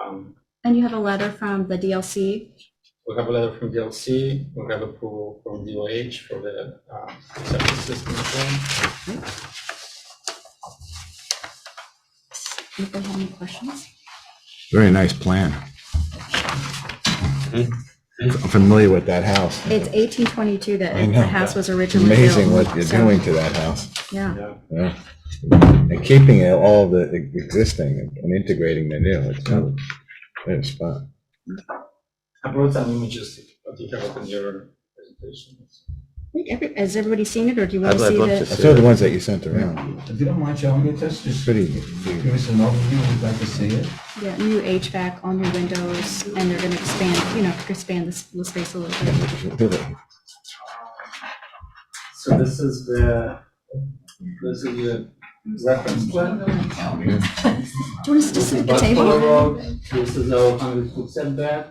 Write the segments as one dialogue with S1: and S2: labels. S1: Um,
S2: And you have a letter from the DLC.
S1: We have a letter from DLC, we have approval from DOH for the uh, septic system plan.
S2: If they have any questions.
S3: Very nice plan. I'm familiar with that house.
S2: It's 1822 that
S3: I
S2: it-
S3: know.
S2: the house was
S3: It's
S2: originally built.
S3: amazing what you're
S2: so,
S3: doing to that house.
S2: Yeah.
S1: Yeah.
S3: Yeah. And keeping it all the e-, existing and integrating the new. It's a good spot.
S1: I brought some images that you have in your presentation.
S2: Wait, every- Has everybody seen it or do you want
S4: I'd-
S2: to
S4: I'd
S2: see
S4: love to
S3: I
S2: the?
S4: see.
S3: saw the ones that you sent around.
S5: If you don't mind showing it, just just
S3: Pretty.
S5: give us an overview, we'd like to see it.
S2: Yeah, new HVAC, all new windows, and they're going to expand, you know, expand the s- the space a little bit.
S1: So this is the, this is the reference plan.
S2: Do you want us to
S1: This is
S2: sit at the
S1: Buffalo
S2: table?
S3: uh,
S1: Road, this is our hundred foot setback.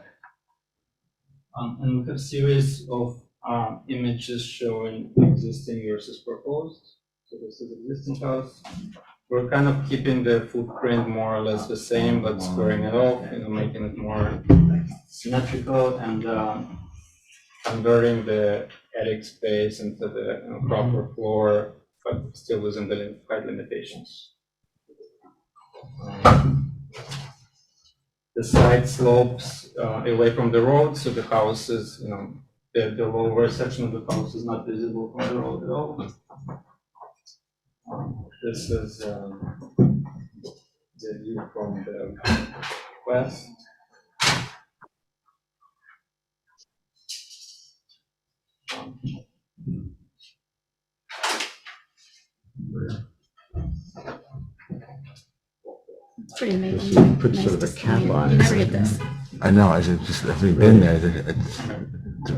S1: Um, and we have series of, uh, images showing existing versus proposed. So this is existing house. We're kind of keeping the footprint more or less the same, but squaring it off, you know, making it more symmetrical and, um, converting the attic space into the you know, proper floor, but still within the lim- height limitations. the side slopes uh, away from the road, so the house is, you know, the, the lower section of the house is not visible from the road at all. Um, This is um, the view from the west.
S2: It's pretty amazing.
S3: Just sort of put
S2: Nice
S3: sort of a
S2: to see
S3: cap
S2: it.
S3: on
S2: You
S3: it.
S2: never get this.
S3: I know, I said, just, I've been there, it- it's,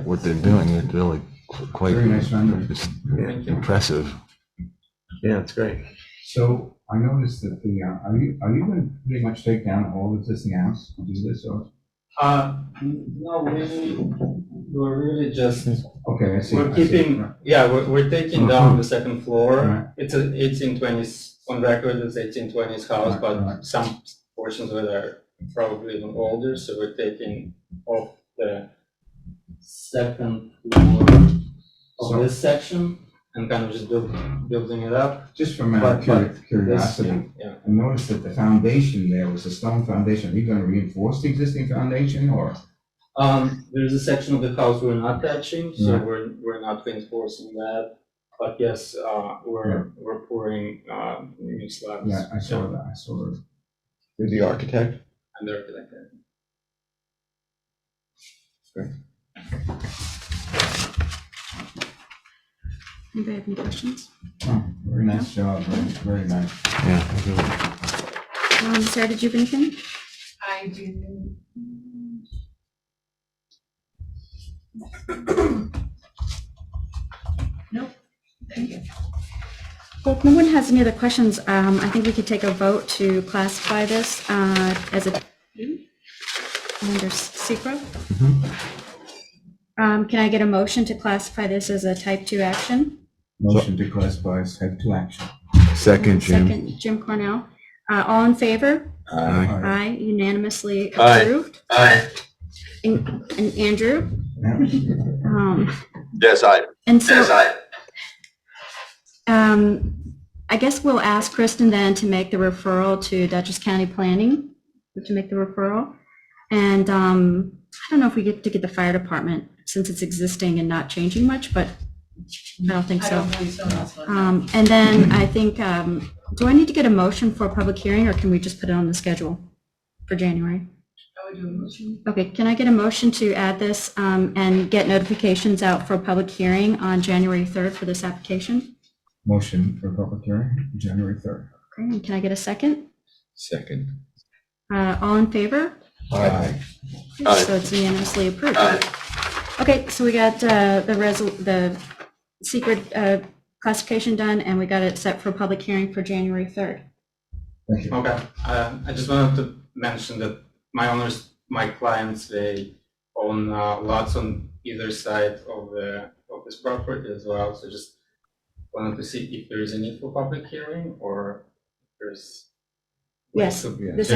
S3: what they're doing is really quite
S5: Very nice rendering.
S3: it's
S1: Thank you.
S3: impressive.
S4: Yeah, it's great.
S5: So I noticed that the, uh, are you, are you going to pretty much take down all existing house and do this or?
S1: Uh, no, we, we're really just,
S5: Okay, I see.
S1: we're
S5: I see.
S1: keeping,
S5: Right.
S1: yeah, we're, we're taking down the second
S5: Mm-hmm. Right.
S1: floor. It's a eighteen twenties, on record, it's eighteen twenties house,
S5: Right,
S1: but
S5: right.
S1: some portions of it are probably even older, so we're taking off the second floor
S5: So-
S1: of this section and kind of just build, building it up.
S5: Just from out
S1: But-
S5: of curi-
S1: but This-
S5: curiosity,
S1: Yeah,
S5: I noticed that the foundation there was a stone foundation. Are you going to reinforce the existing foundation or?
S1: um, there's a section of the house we're not touching, so
S5: Right.
S1: we're, we're not reinforcing that. But yes, uh, we're, we're pouring, uh, new slabs.
S5: Yeah, I saw that, I saw it.
S4: You're the architect?
S1: And they're like that.
S2: Anybody have any questions?
S5: Oh, Very nice job, very, very nice.
S3: Yeah.
S2: Um, Sarah, did you have anything?
S6: I do. Nope, thank you.
S2: Well, if no one has any other questions, um, I think we could take a vote to classify this uh, as a under secret.
S3: Mm-hmm.
S2: Um Can I get a motion to classify this as a type 2 action?
S5: Motion to classify as type two action.
S3: Second, Jim.
S2: Second, Jim Cornell. Uh, All in favor?
S3: Aye.
S5: All right.
S2: Aye, unanimously
S4: Aye.
S2: approved.
S4: Aye.
S2: And and Andrew?
S5: Yeah.
S2: um,
S4: Yes, I.
S2: And so.
S4: I.
S2: Um, I guess we'll ask Kristen then to make the referral to Dutchess County Planning, to make the referral. And, um, I don't know if we get to get the fire department, since it's existing and not changing much, but I don't think
S6: I
S2: so.
S6: don't believe so, that's one.
S2: Um, and then I think, um, do I need to get a motion for a public hearing, or can we just put it on the schedule for January?
S6: I would do a motion.
S2: Okay, can I get a motion to add this, um, and get notifications out for a public hearing on January 3rd for this application?
S5: Motion for public hearing, January third.
S2: Okay, and can I get a second?
S3: Second.
S2: Uh, All in favor?
S3: Aye.
S4: Aye.
S2: So it's unanimously approved.
S4: Aye.
S2: Okay, so we got uh, the resol, the secret uh, classification done, and we got it set for public hearing for January 3rd.
S5: Thank you.
S1: Okay, uh, I just wanted to mention that my owners, my clients, they own uh, lots on either side of the, of this property as well, so just wanted to see if there is a need for public hearing or if there's.
S2: Yes,
S1: Yeah.
S2: This